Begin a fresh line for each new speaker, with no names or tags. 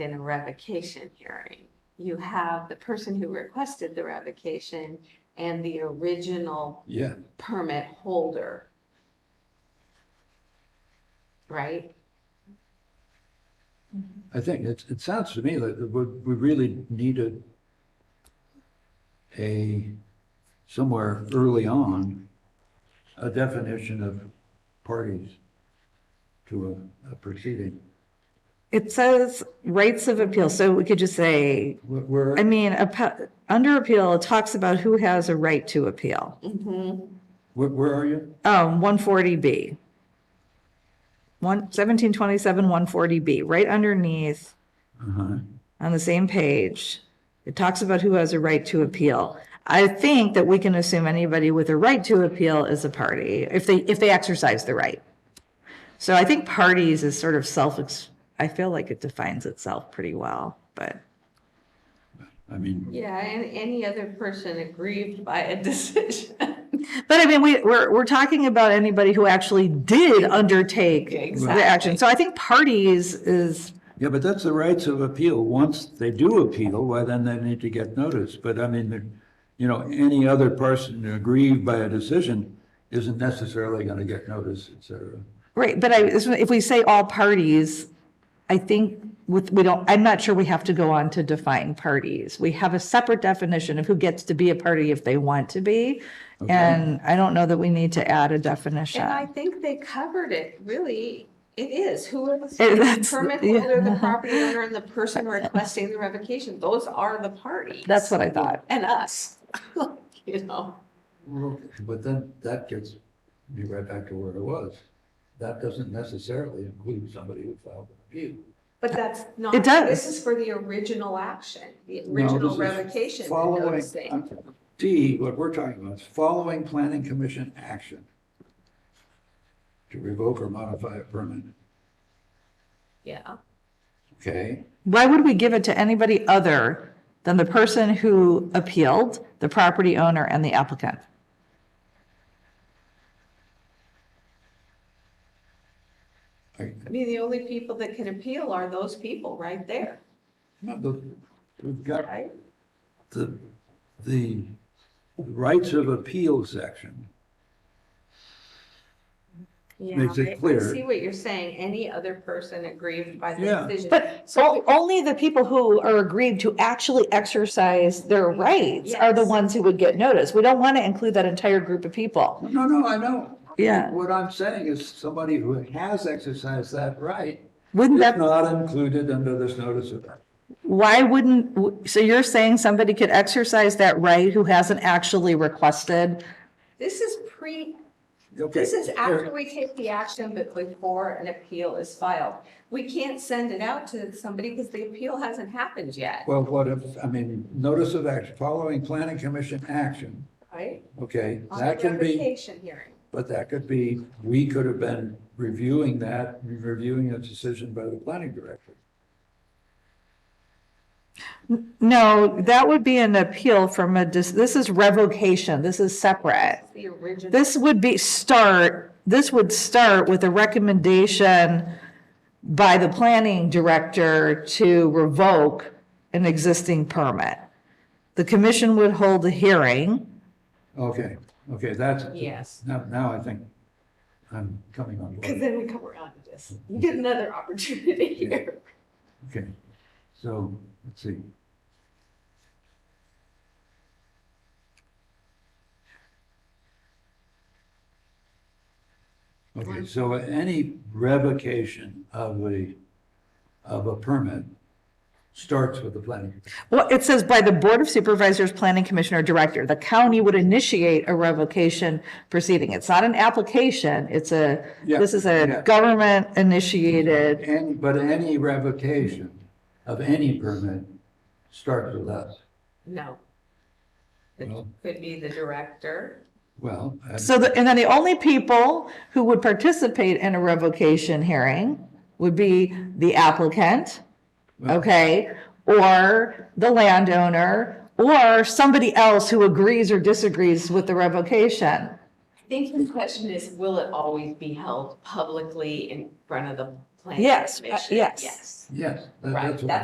in a revocation hearing. You have the person who requested the revocation and the original
Yeah,
permit holder. Right?
I think it, it sounds to me like that we, we really needed a, somewhere early on, a definition of parties to a, a proceeding.
It says rights of appeal, so we could just say,
Where- Where,
I mean, appe- under appeal, it talks about who has a right to appeal.
Mhm.
where, where are you?
Um, one forty B. One, seventeen twenty-seven, one forty B, right underneath,
Uh-huh.
on the same page. It talks about who has a right to appeal. I think that we can assume anybody with a right to appeal is a party, if they, if they exercise the right. So I think parties is sort of self, I feel like it defines itself pretty well, but.
I mean,
Yeah, and any other person aggrieved by a decision.
But I mean, we, we're, we're talking about anybody who actually did undertake
Exactly.
the action. So I think parties is,
yeah, but that's the rights of appeal. Once they do appeal, well, then they need to get notice. But I mean, the- you know, any other person aggrieved by a decision isn't necessarily going to get notice, et cetera.
right, but I, if we say all parties, I think with, we don't, I'm not sure we have to go on to define parties. We have a separate definition of who gets to be a party if they want to be. And I don't know that we need to add a definition.
And I think they covered it, really. It is, who are
It-
the
that's-
permit
yeah.
holder, the property owner, and the person requesting the revocation. Those are the parties.
That's what I thought.
And us, you know.
Well, But then that gets me right back to where I was. That doesn't necessarily include somebody who filed an appeal.
But that's not.
It does.
This is for the original action, the
No,
original
this is
revocation. and
Following,
noticing.
I'm- D, what we're talking about is following planning commission action to revoke or modify a permit,
Yeah,
okay?
Why would we give it to anybody other than the person who appealed, the property owner and the applicant?
I-
I mean, the only people that can appeal are those people right there,
no, the- We've got
right?
the, the rights of appeal section.
Yeah,
Makes it
I- I
clear.
See what you're saying, any other person aggrieved by
Yeah.
the decision.
But o- only the people who are aggrieved to actually exercise their rights are the
Yes.
ones who would get notice. We don't want to include that entire group of people.
No, no, I know.
Yeah.
What I'm saying is somebody who has exercised that right
Wouldn't
It's
that,
not included under this notice of,
why wouldn't, w- so you're saying somebody could exercise that right who hasn't actually requested?
This is pre,
okay.
this is
here-
after we take the action, but before an appeal is filed. We can't send it out to somebody because the appeal hasn't happened yet,
Well, what if, I mean, notice of action, following planning commission action,
right?
okay,
On
that
the
can be,
revocation hearing.
but that could be, we could have been reviewing that, reviewing a decision by the planning director.
No, that would be an appeal from a, dis- this is revocation. This is separate.
The original.
This would be start, this would start with a recommendation by the planning director to revoke an existing permit. The commission would hold a hearing.
Okay, okay, that's.
Yes.
Now, now I think I'm coming on
Because
board,
then we come around to this. You get another opportunity here.
okay, so, let's see. Okay, so any revocation of a, of a permit starts with the planning.
Well, it says by the Board of Supervisors, Planning Commissioner, Director, the county would initiate a revocation proceeding. It's not an application, it's a,
Yeah,
this is
yeah.
a government initiated.
And, but any revocation of any permit starts with us.
No. It
Well-
could be the director.
Well, uh, I-
So the, and then the only people who would participate in a revocation hearing would be the applicant, okay? Or the landowner, or somebody else who agrees or disagrees with the revocation.
I think the question is, will it always be held publicly in front of the planning
Yes, uh,
commission?
yes.
Yes.
yes, that-
Right,
that's what.
that's